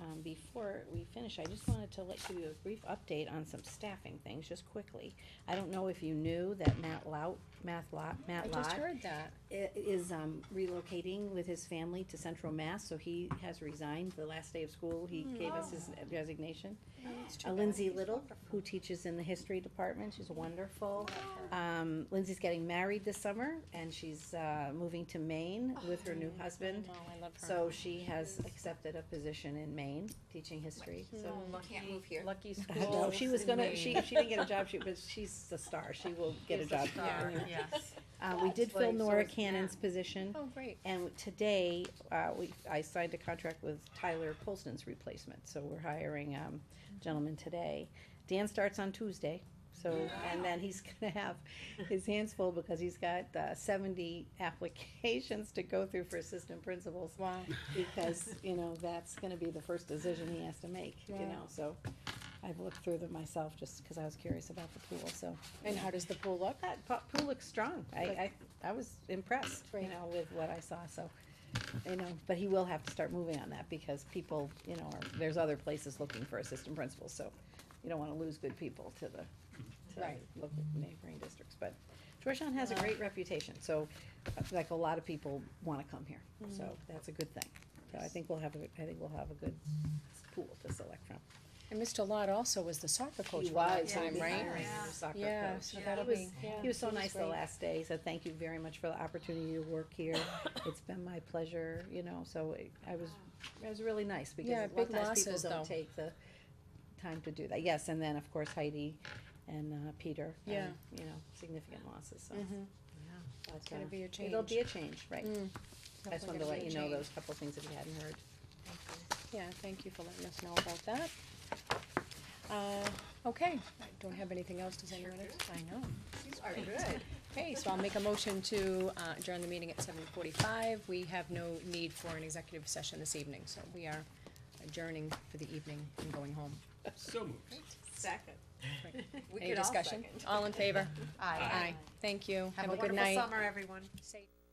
um, before we finish, I just wanted to let give you a brief update on some staffing things, just quickly. I don't know if you knew that Matt Lout, Matt Lot, I Matt just Lot heard that. i- is um, relocating with his family to Central Mass, so he has resigned the last day of school. He Hmm. gave Oh. us his resignation. Uh, Lindsay Little, who teaches in the history department, she's wonderful. Um, Lindsay's getting married this summer, and she's uh, moving to Maine with her Oh, new husband. No, I love her. So she has accepted a position in Maine, teaching history. So You can't move here. Lucky school. no, she was gonna. She she didn't get a job. She but she's a star. She will get a job. Yes. Uh, we did Well, fill so Nora is Cannon's Matt. position. Oh, great. And today, uh, we, I signed a contract with Tyler Colston's replacement, so we're hiring, um, gentleman today. Dan starts on Tuesday, so, and then he's gonna have his hands full because he's got, uh, seventy applications to go through for assistant principals. Wow. Because, you know, that's gonna be the first decision he has to make, you Right. know, so I've looked through them myself just because I was curious about the pool, so. And how does the pool look? That po- pool looks strong. I, I, I was impressed, you Right. know, with what I saw, so, you know, but he will have to start moving on that because people, you know, are, there's other places looking for assistant principals, so you don't wanna lose good people to the, to Right. Uh. local neighboring districts, but Georgetown has a great reputation, so, uh, like, a lot of people wanna come here, Mm-hmm. so that's a good thing. So I think we'll have, a I think we'll have a good pool to select from. And Mr. Lott also was the soccer coach He for that was, time, he was right? hiring the soccer Yeah, coach. so He that'll was- be- yeah, He was so he was nice the great. last day, he said, thank you very much for the opportunity to work here, it's been my pleasure, you know, so it- I was, it was really nice, because a Yeah, lot big of times people losses, don't though. take the time to do that, yes, and then, of course, Heidi and, uh, Peter, Yeah. and, you know, significant losses, so. Mhm. but, It's gonna uh, be a It'll change. Mm-hmm. be a change, right, Mm. I just Definitely wanted to gonna let be a you know change. those couple things if you hadn't heard. Yeah, thank you for letting us know about that. Uh, okay, I don't have anything else, does anyone else? I know. These are good. Okay, so I'll make a motion to uh, adjourn the meeting at seven forty-five. We have no need for an executive session this evening, so we are adjourning for the evening and going home. So moved. Second. We Any could all discussion? second. All in favor? Aye. Thank you. Have a good night. wonderful summer, everyone. Say-